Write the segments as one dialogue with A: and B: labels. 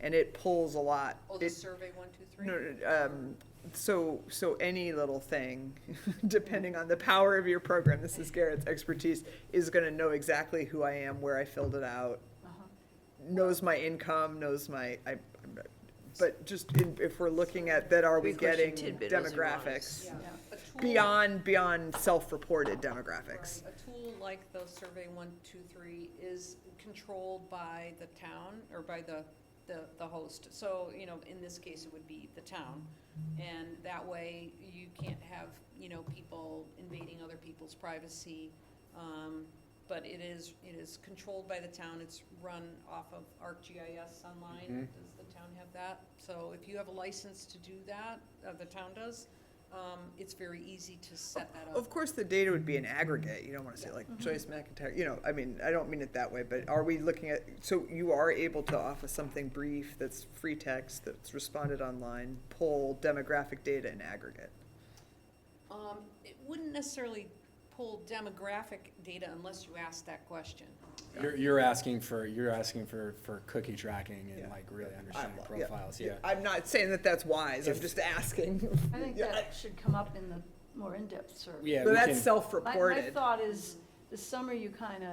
A: and it pulls a lot.
B: Oh, the
A: It-
B: survey one, two, three?
A: No, no, um, so, so any little thing, depending on the power of your program, this is Garrett's expertise, is gonna know exactly who I am, where I filled it out,
B: Uh-huh.
A: knows my income, knows my, I, I'm- but just in- if we're looking at that, are we
C: Good question.
A: getting
C: Tidbit was ironic.
A: demographics?
B: Yeah. A tool-
A: Beyond, beyond self-reported
B: right,
A: demographics.
B: A tool like the survey one, two, three is controlled by the town or by the, the, the host. So, you know, in this case, it would be the town. And that way, you can't have, you know, people invading other people's privacy. Um, but it is, it is controlled by the town. It's run off of ArcGIS online. Does the town have that? So if you have a license to do that, uh, the town does, um, it's very easy to set that up.
A: Of course, the data would be an aggregate, you don't wanna say like
D: Mm-hmm.
A: Joyce McIntyre, you know, I mean, I don't mean it that way, but are we looking at, so you are able to offer something brief that's free text, that's responded online, pull demographic data in aggregate?
B: Um, it wouldn't necessarily pull demographic data unless you ask that question.
E: You're, you're asking for, you're asking for, for cookie tracking
A: Yeah.
E: and like really
A: I-
E: understanding
A: yeah.
E: profiles, yeah.
A: I'm not saying that that's wise, I'm
E: If-
A: just asking.
D: I think
A: Yeah,
D: that should come up in the more in-depth survey.
E: Yeah,
A: But
E: we
A: that's
E: can,
D: My, my
A: self-reported.
D: thought is, this summer you kind of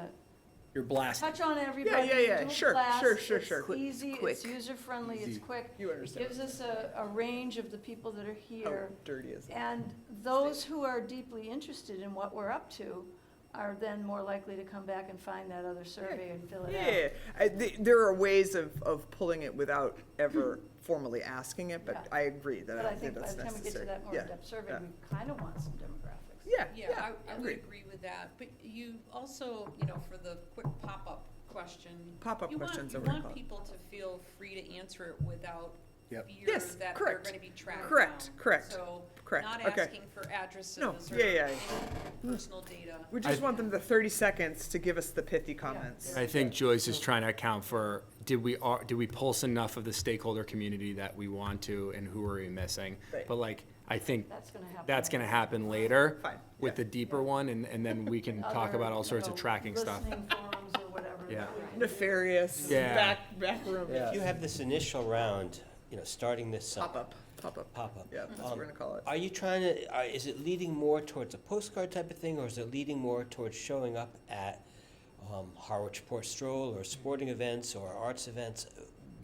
E: you're blasting.
D: touch on everybody.
A: yeah, yeah,
D: do a
A: sure,
D: class,
A: sure, sure, sure.
D: It's
A: Quick,
D: easy,
C: quick.
D: it's user-friendly, it's
E: Easy.
D: quick.
A: You understand
D: Gives us a, a range of the people that are
A: how
D: here.
A: dirty is that?
D: And those who are deeply interested in what we're up to are then more likely to come back and find that other survey and fill it out.
A: Yeah, I, th- there are ways of, of pulling it without ever formally asking it, but
D: Yeah.
A: I agree that I
D: But I
A: don't think
D: think by
A: that's
D: the time we get to
A: necessary.
D: that more
A: Yeah,
D: in-depth survey,
A: yeah.
D: we kind of want some demographics.
A: Yeah,
B: Yeah,
A: yeah,
B: I, I would
A: agreed.
B: agree with that, but you also, you know, for the quick pop-up question.
A: Pop-up
B: you want-
A: questions, I
B: You
A: would call
B: want
A: it.
B: people to feel free to answer it without
E: Yep.
B: fear
A: Yes,
B: that they're
A: correct.
B: gonna be tracked down.
A: Correct, correct,
B: So,
A: correct,
B: not
A: okay.
B: asking for addresses
A: No,
B: or
A: yeah, yeah.
B: any personal data.
A: We just
E: I-
A: want them the thirty seconds to give us the pithy comments.
E: I think Joyce is trying to account for, did we, ar- did we pulse enough of the stakeholder community that we want to and who are we missing?
A: Right.
E: But like, I think
D: That's gonna happen.
E: that's gonna happen later.
A: Fine,
E: With
A: yeah.
E: the deeper one and, and then we can talk
D: Other,
E: about all sorts of
D: you know,
E: tracking stuff.
D: Listening forums or whatever.
E: Yeah.
A: Nefarious,
E: Yeah.
A: back, back room,
F: If you have this initial round, you know, starting this summer.
A: pop up, pop up,
F: Pop up.
A: yeah, that's what
F: Um,
A: we're gonna call it.
F: Are you trying to, are, is it leading more towards a postcard type of thing, or is it leading more towards showing up at um, Harwich Port Stroll, or sporting events, or arts events?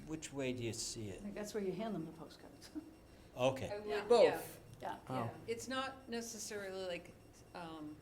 F: Which way do you see it?
D: I think that's where you hand them the postcards.
F: Okay.
B: I would, yeah.
A: Both,
D: Yeah.
E: Oh.
B: It's not necessarily like, um,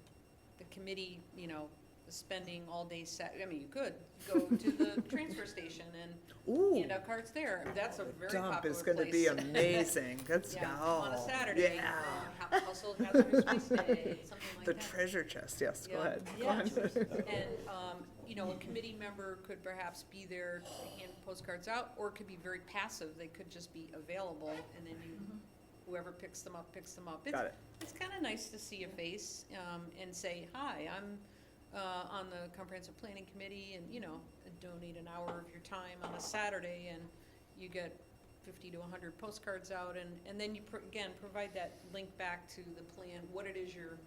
B: the committee, you know, spending all day sat, I mean, you could go to the transfer station and
A: ooh,
B: hand out cards there. That's a very popular
A: dump
B: place.
A: is gonna be amazing, that's,
B: Yeah, on a
A: oh,
B: Saturday,
A: yeah.
B: uh, ha- household hazardous waste day, something like
A: The
B: that.
A: treasure chest, yes, go
B: Yeah.
A: ahead. go
B: Yeah.
A: ahead.
B: And, um, you know, a committee member could perhaps be there to hand postcards out, or it could be very passive. They could just be available, and then you,
A: Mm-hmm.
B: whoever picks them up, picks them up. It's-
A: Got it.
B: It's kind of nice to see a face, um, and say, hi, I'm, uh, on the comprehensive planning committee, and, you know, donate an hour of your time on a Saturday, and you get fifty to hundred postcards out, and, and then you, pro- again, provide that link back to the plan, what it is you're,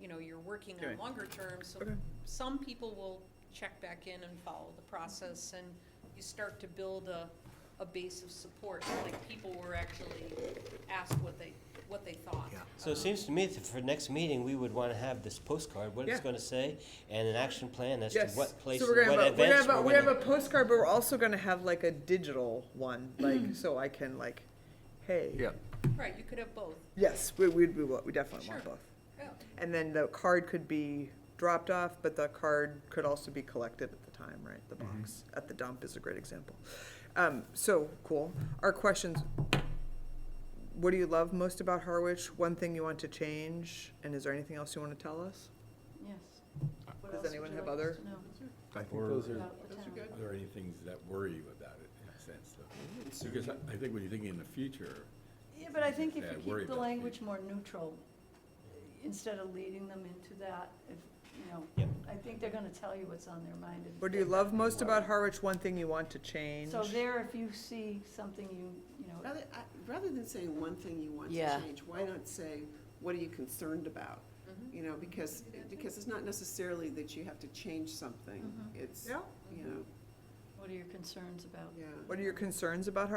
B: you know, you're working
A: Okay.
B: on longer term, so
A: Okay.
B: some people will check back in and follow the process, and you start to build a, a base of support, like people were actually asked what they, what they thought.
E: Yeah.
F: So it seems to me that for next meeting, we would want to have this postcard, what it's
A: Yeah.
F: going to say, and an action plan as to
A: Yes.
F: what places,
A: So we're
F: what
A: gonna have a-
F: events
A: we're gonna have a-
F: we're
A: We have a
F: gonna-
A: postcard, but we're also gonna have like a digital one, like, so I can like, hey.
E: Yeah.
B: Right, you could have both,
A: Yes, we, we'd, we, wa- we definitely want
B: Sure.
A: both.
B: yeah.
A: And then the card could be dropped off, but the card could also be collected at the time, right? The box at the dump is a great example. Um, so, cool. Our questions, what do you love most about Harwich? One thing you want to change, and is there anything else you want to tell us?
D: Yes. What
A: Does
D: else would
A: anyone
D: you
A: have
D: like us
A: other-
D: to know
G: I think
H: Or-
G: those are,
D: about the town?
G: are there any things that worry you about it in a sense though? Because I I think when you're thinking in the future,
D: Yeah, but I think if
G: Yeah,
D: you
G: worry
D: keep the
G: about the
D: language more neutral, instead of leading them into that, if, you know,
F: Yep.
D: I think they're gonna tell you what's on their mind. and
A: What do you
D: they're-
A: love most about Harwich? One thing you want to change?
D: So there, if you see something you, you know,
I: Rather, I- rather than saying one thing you want to
C: Yeah.
I: change, why not say, what are you concerned about? You know, because, because it's not necessarily that you have to change something. It's,
A: Yeah.
I: you know,
D: What are your concerns about?
I: yeah.
A: What are your concerns about